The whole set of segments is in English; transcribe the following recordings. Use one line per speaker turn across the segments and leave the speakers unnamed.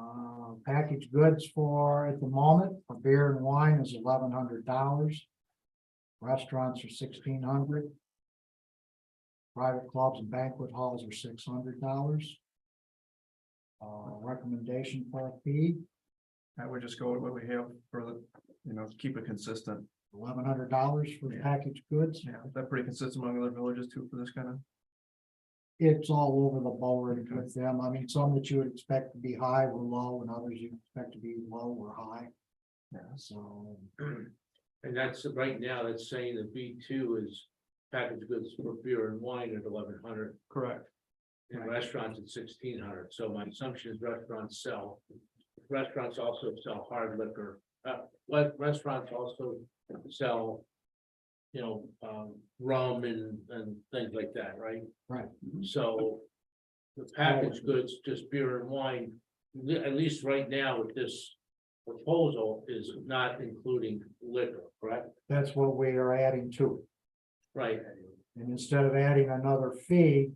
Uh, packaged goods for, at the moment, for beer and wine is eleven hundred dollars. Restaurants are sixteen hundred. dollars Private clubs and banquet halls are six hundred dollars. Uh, recommendation for a fee,
I would just go with what we have for the, you know, keep it consistent.
eleven hundred dollars for the
Yeah.
packaged goods.
Yeah, is that pretty consistent among other villages too for this kind of?
It's all over the board with them. I mean, some that you would expect to be high were low and others you expect to be low or high,
Yes.
so.
And that's, right now, that's saying that B two is packaged goods for beer and wine at eleven hundred,
Correct.
and
Right.
restaurants at sixteen hundred, so my assumption is restaurants sell. Restaurants also sell hard liquor, uh, what, restaurants also sell. You know, um, rum and, and things like that, right?
Right.
So. The packaged goods, just beer and wine, le- at least right now with this proposal is not including liquor, correct?
That's what we are adding to it.
Right,
And instead of adding another fee,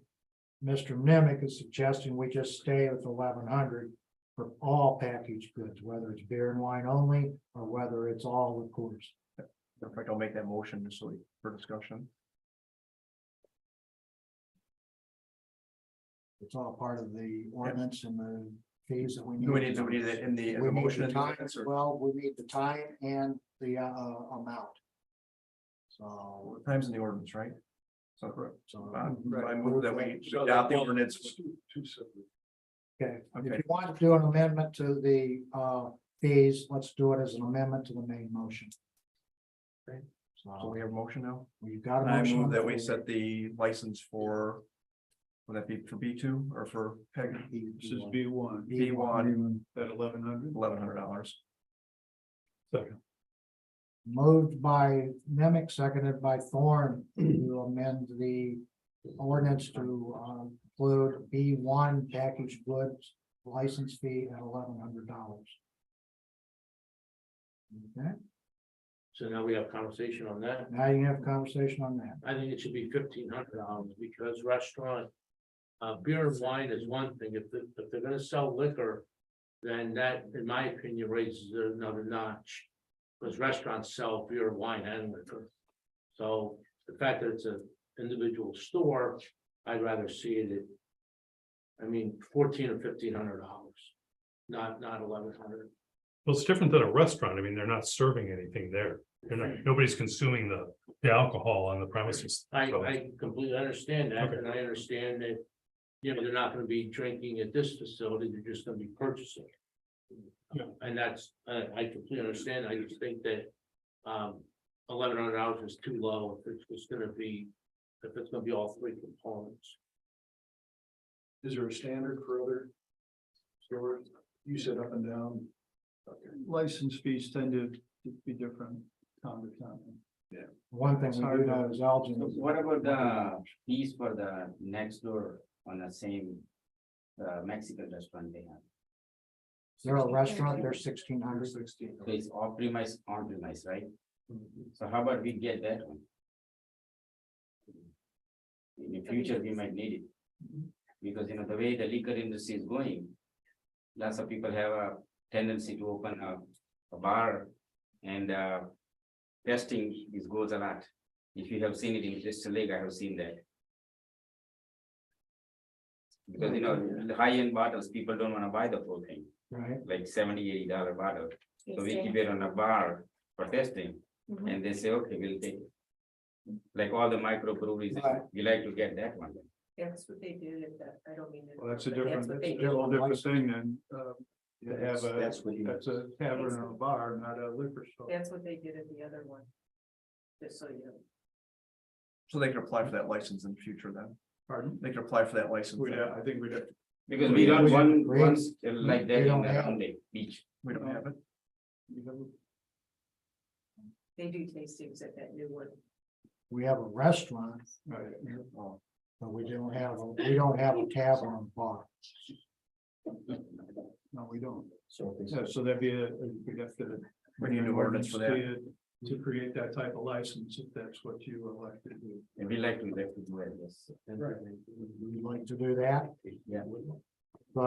Mr. Nemec is suggesting we just stay with eleven hundred for all packaged goods, whether it's beer and wine only, or whether it's all liqueurs.
In fact, I'll make that motion just so we- for discussion.
It's all part of the ordinance and the fees that we need.
Do we need, do we need that in the, in
We
the
need
motion?
the
in the
time,
minutes, or-
well, we need the time and the uh amount. So,
Times in the ordinance, right? So correct.
so.
I I move that we adopt the ordinance.
Okay, if
Okay.
you want to do an amendment to the uh fees, let's do it as an amendment to the main motion.
Okay. So
So
we have a motion now?
we've got a
I
motion. on
move
the
that we
floor.
set the license for. Would that be for B two or for peg?
This is
B one. B one. At eleven hundred? Eleven hundred dollars.
Moved by Nemec, seconded by Thorne to amend the ordinance to uh, include B one packaged goods license fee at eleven hundred dollars. Okay,
so now we have conversation on that.
now you have a conversation on that.
I think it should be fifteen hundred dollars because restaurant. Uh, beer and wine is one thing. If, they- if they're gonna sell liquor. Then that, in my opinion, raises it another notch. Because restaurants sell beer, wine and liquor. So the fact that it's an individual store, I'd rather see it at. I mean, fourteen or fifteen hundred dollars, not, not eleven hundred.
Well, it's different than a restaurant. I mean, they're not serving anything there. They're not, nobody's consuming the, the alcohol on the premises.
I,
So,
I completely understand that,
Okay.
and I understand that, you know, they're not gonna be drinking at this facility, they're just gonna be purchasing.
Yeah.
And that's, I, I completely understand, I just think that, um, eleven hundred dollars is too low, if it's just gonna be, if it's gonna be all three components.
Is there a standard for other? Stores, you said up and down.
license fees tend to be different town to town.
One thing we do know is Elgin.
So What about the fees for the next door on the same, the Mexican restaurant they have?
They're a restaurant, they're sixteen hundred.
Sixteen.
So it's off premise, on premise, right? So how about we get that one? In the future, we might need it. Because, you know, the way the liquor industry is going, lots of people have a tendency to open a, a bar and, uh, testing is goes a lot. If you have seen it in Crystal Lake, I have seen that. Because, you know, the high-end bottles, people don't wanna buy the whole thing,
Right,
like seventy, eighty dollar bottle. So we keep
Mhm.
it on a bar for testing
mm-hmm,
and they say, okay, we'll take. it." Like all the micro breweries,
Right.
we like to get that one.
That's what they did, at that- I don't mean. to
Well, that's a
interrupt, but
different,
what
that's
they
a
did.
whole different thing than, uh, to have
That's
a,
that's what you.
that's a tavern or a bar, not a liquor store.
That's what they did at the other one. Just so you know.
So they can apply for that license in the future then.
Pardon?
They can apply for that license.
We'd have- I think we'd have,
Because we don't
We-
want
we-
ones like that
we
in
don't
the
have-
round lake beach.
We don't have it.
we'd have
They do tastings at that new one.
we have a restaurant,
right.
Oh,
but we don't have, a we don't have a tavern and bar.
No, we don't.
So.
So, so that'd be a, we'd have to.
We need an ordinance for that.
to- To create that type of license, if that's what you elect to do.
And we like to, like to do it, yes.
We'd like to do that.
Yeah.